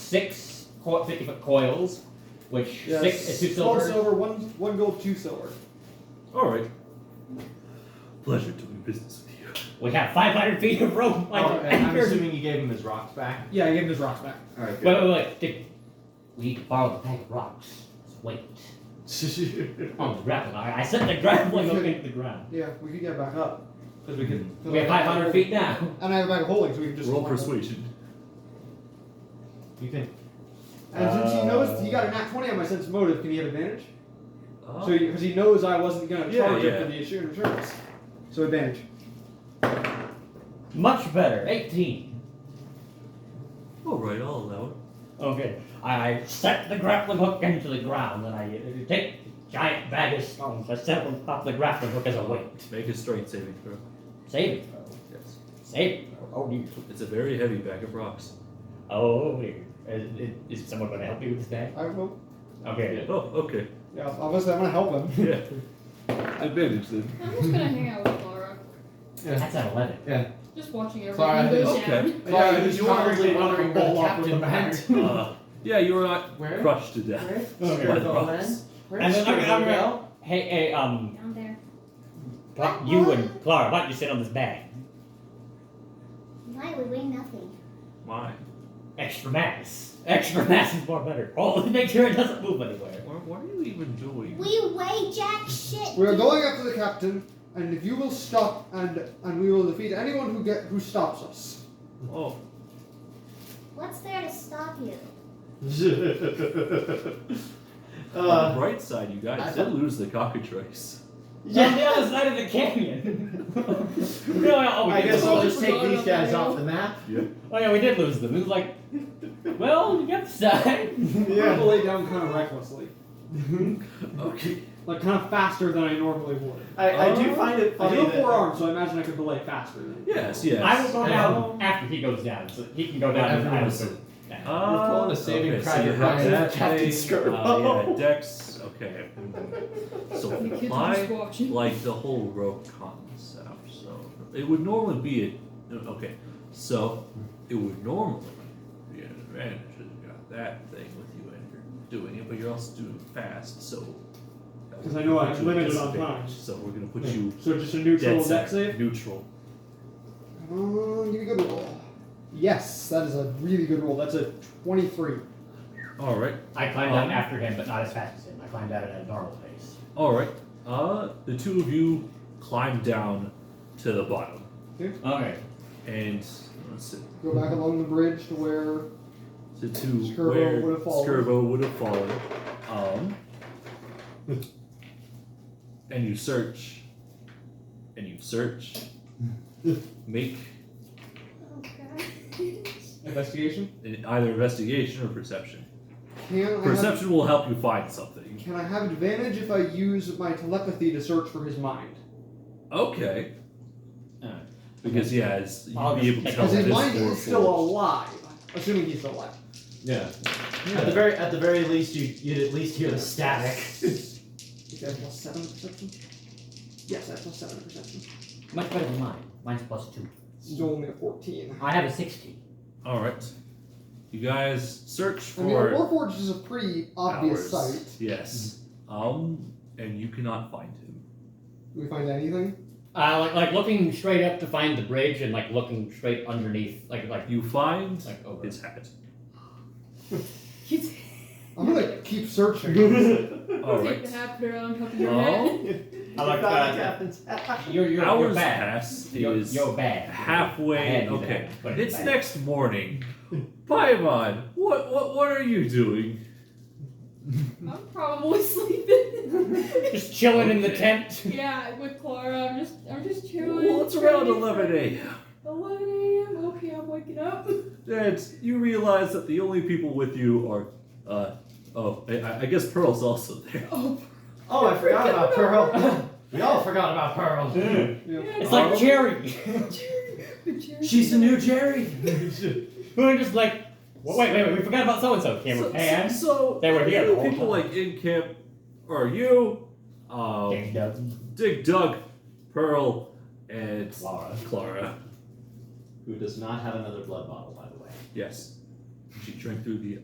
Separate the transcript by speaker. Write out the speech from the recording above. Speaker 1: six co- 50 foot coils, which
Speaker 2: Yes.
Speaker 1: six is two
Speaker 2: One
Speaker 1: silver.
Speaker 2: silver, one one gold, two silver.
Speaker 3: All right. Pleasure doing business with you.
Speaker 1: We have 500 feet of rope. Like,
Speaker 4: Oh, and I'm assuming you gave him his rocks back.
Speaker 2: Yeah, I gave him his rocks back.
Speaker 4: All right.
Speaker 1: wait, wait, wait. Did- We borrowed the bag of rocks. Let's wait.
Speaker 4: Good.
Speaker 1: On the gravel. I, I set the gravel up into the ground.
Speaker 2: Yeah, we could get back up because we could.
Speaker 1: We have 500 feet now.
Speaker 2: And I have a bag of holding, so we can just
Speaker 3: Roll
Speaker 2: climb up.
Speaker 3: persuasion.
Speaker 4: you can.
Speaker 2: And since he
Speaker 3: Uh,
Speaker 2: knows he got an nat twenty on my sense of motive, can he have advantage?
Speaker 4: Oh.
Speaker 2: So because he, knows I wasn't going to
Speaker 3: Yeah,
Speaker 2: charge him
Speaker 3: yeah.
Speaker 2: for the issue insurance, so advantage.
Speaker 1: Much better. 18.
Speaker 3: All Oh, right, I'll allow it.
Speaker 1: Okay. Oh, I, I set the grappling hook into the ground, and I uh, take the giant bag of stones. I set them off the grappling hook as a weight.
Speaker 3: Make a strength saving throw.
Speaker 1: Save it, bro.
Speaker 3: Yes.
Speaker 1: Save it, bro. Oh, dear.
Speaker 3: It's a very heavy bag of rocks.
Speaker 1: Oh, dear. Is, is- is someone going to help you with that?
Speaker 2: I will.
Speaker 1: Okay.
Speaker 3: Oh, okay.
Speaker 2: Yeah, obviously I'm going to help him.
Speaker 3: Yeah. Advantage then.
Speaker 5: I'm just gonna hang out with Laura.
Speaker 1: That's an 11.
Speaker 5: Just watching everything
Speaker 4: Sorry, I
Speaker 5: goes
Speaker 4: think-
Speaker 5: down.
Speaker 3: Okay.
Speaker 2: Yeah,
Speaker 4: Sorry,
Speaker 2: he's
Speaker 4: you're probably
Speaker 2: probably
Speaker 4: wondering where
Speaker 2: roll
Speaker 4: the
Speaker 2: off with
Speaker 4: captain
Speaker 2: the
Speaker 4: went.
Speaker 3: Uh, yeah, you're not
Speaker 4: Where?
Speaker 3: crushed to death.
Speaker 1: Okay.
Speaker 3: By the rocks.
Speaker 1: And then I'm, I'm gonna- hey, hey, um,
Speaker 5: Down there.
Speaker 1: Cla- you and Clara, why don't you sit on this bag?
Speaker 6: Why? We weigh nothing.
Speaker 3: Why?
Speaker 1: Extra mass. Extra mass is more better. Oh, make sure it doesn't move anywhere.
Speaker 3: What, what are you even doing?
Speaker 6: We weigh jack shit.
Speaker 2: We are going up to the captain, and if you will stop, and and we will defeat anyone who get who stops us.
Speaker 3: Oh,
Speaker 6: What's there to stop you?
Speaker 3: on
Speaker 4: uh,
Speaker 3: the bright side, you guys did lose the cockatrice.
Speaker 1: On the other side of the canyon. no, I, oh, we
Speaker 4: I
Speaker 1: did
Speaker 4: guess
Speaker 1: lose
Speaker 4: I'll
Speaker 1: them.
Speaker 4: just take these guys off the map.
Speaker 1: Oh yeah, we did lose them. It was like, well, you got the side.
Speaker 2: I'm gonna lay down kind of recklessly,
Speaker 3: Okay.
Speaker 2: like kind of faster than I normally would.
Speaker 4: I, I do find it
Speaker 2: Oh. I
Speaker 4: funny.
Speaker 2: do have
Speaker 4: that-
Speaker 2: four arms, so I imagine I could belay faster. Than
Speaker 3: Yes, yes.
Speaker 1: I will go
Speaker 4: Um,
Speaker 1: down after he goes down, so he can go down. and I will
Speaker 4: Everyone's-
Speaker 1: go down.
Speaker 3: Uh,
Speaker 4: We're pulling a saving
Speaker 3: okay,
Speaker 4: cry
Speaker 3: so you
Speaker 4: to
Speaker 3: have
Speaker 4: Ryan
Speaker 3: that
Speaker 4: Captain
Speaker 3: thing,
Speaker 4: Scarborough.
Speaker 3: Uh, yeah, Dex. Okay. So
Speaker 5: The kids are just
Speaker 3: my
Speaker 5: watching.
Speaker 3: like the whole rope concept. So it would normally be it. Okay, so it would normally be an advantage. if You got that thing with you, and you're doing it, but you're also doing it fast. So that would
Speaker 2: 'Cause I know
Speaker 3: put
Speaker 2: I'm
Speaker 3: you at
Speaker 2: limited on
Speaker 3: disadvantage,
Speaker 2: times.
Speaker 3: So we're gonna put
Speaker 2: Yeah.
Speaker 3: you
Speaker 2: So just a neutral
Speaker 3: dead
Speaker 2: deck
Speaker 3: center,
Speaker 2: save.
Speaker 3: neutral.
Speaker 2: Uh, give me a good roll. Yes, that is a really good roll. That's a twenty-three.
Speaker 3: All right.
Speaker 1: I climbed
Speaker 3: Um,
Speaker 1: down after him, but not as fast as him. I climbed out at a normal pace.
Speaker 3: All right. Uh, the two of you climb down to the bottom,
Speaker 1: Okay.
Speaker 3: and let's see.
Speaker 2: Go back along the bridge to where
Speaker 3: So to
Speaker 2: Skirbo
Speaker 3: where
Speaker 2: would've fallen.
Speaker 3: Skirbo would have fallen. Um, and you search, and you search. Make
Speaker 6: Oh god.
Speaker 2: investigation.
Speaker 3: an- either investigation or perception.
Speaker 2: Can I have
Speaker 3: Perception will help you find something.
Speaker 2: Can I have advantage if I use my telepathy to search for his mind?
Speaker 3: Okay.
Speaker 1: Alright.
Speaker 3: Because yeah, it's, you'd
Speaker 1: I'll
Speaker 3: be
Speaker 1: just
Speaker 3: able to
Speaker 1: take No,
Speaker 3: tell
Speaker 2: Because
Speaker 1: it
Speaker 2: his
Speaker 3: this
Speaker 2: mind
Speaker 3: for
Speaker 2: is still
Speaker 3: forged.
Speaker 2: alive, assuming he's still alive.
Speaker 4: Yeah. At the
Speaker 3: Yeah.
Speaker 4: very at the very least, you you'd at least hear the static.
Speaker 2: Is that plus seven perception? Yes, that's plus seven perception.
Speaker 1: Much better than mine. Mine's plus two.
Speaker 2: Still only a fourteen.
Speaker 1: I have a 16.
Speaker 3: All right. You guys search
Speaker 2: I mean,
Speaker 3: for
Speaker 2: Warforged is a pretty obvious
Speaker 3: hours.
Speaker 2: sight.
Speaker 3: Yes. Um, and you cannot find him.
Speaker 2: Do we find anything?
Speaker 1: Uh, like, like looking straight up to find the bridge and like looking straight underneath, like like
Speaker 3: You find
Speaker 1: like over.
Speaker 3: his hat.
Speaker 2: I'm gonna keep searching.
Speaker 4: Alright.
Speaker 3: All
Speaker 5: Take
Speaker 3: right.
Speaker 5: the hat, put it on top of your head.
Speaker 3: Well,
Speaker 1: I like that. You're you're, you're
Speaker 3: hours
Speaker 1: bad.
Speaker 3: pass
Speaker 1: You're,
Speaker 3: is
Speaker 1: you're bad. I
Speaker 3: halfway.
Speaker 1: had you
Speaker 3: Okay,
Speaker 1: there, but
Speaker 3: it's
Speaker 1: bad.
Speaker 3: next morning. Paimon, what what what are you doing?
Speaker 5: I'm probably sleeping.
Speaker 1: Just chilling in the
Speaker 3: Okay.
Speaker 1: tent.
Speaker 5: yeah, with Clara, I'm just I'm just chilling.
Speaker 3: Well, it's around
Speaker 5: ready for-
Speaker 3: eleven a.m.
Speaker 5: 11 a.m. Okay, I'm waking up.
Speaker 3: And you realize that the only people with you are, uh, oh, I- I, I guess Pearl's also there.
Speaker 5: Oh,
Speaker 4: Oh, I forgot about Pearl. We all forgot about Pearl.
Speaker 2: Yeah.
Speaker 1: It's like
Speaker 3: Oh.
Speaker 1: Jerry.
Speaker 5: Jerry.
Speaker 4: She's the new Jerry.
Speaker 1: We were just like, wait, wait, wait, we forgot about so and so. Camera
Speaker 3: So-
Speaker 1: pan.
Speaker 3: So
Speaker 1: They were here
Speaker 3: the
Speaker 1: the whole
Speaker 3: people
Speaker 1: time.
Speaker 3: like in camp are you, um,
Speaker 1: Ding dong,
Speaker 3: Dig Dug, Pearl, and
Speaker 1: Clara.
Speaker 3: Clara.
Speaker 4: Who does not have another blood bottle, by the way.
Speaker 3: Yes. She drank through the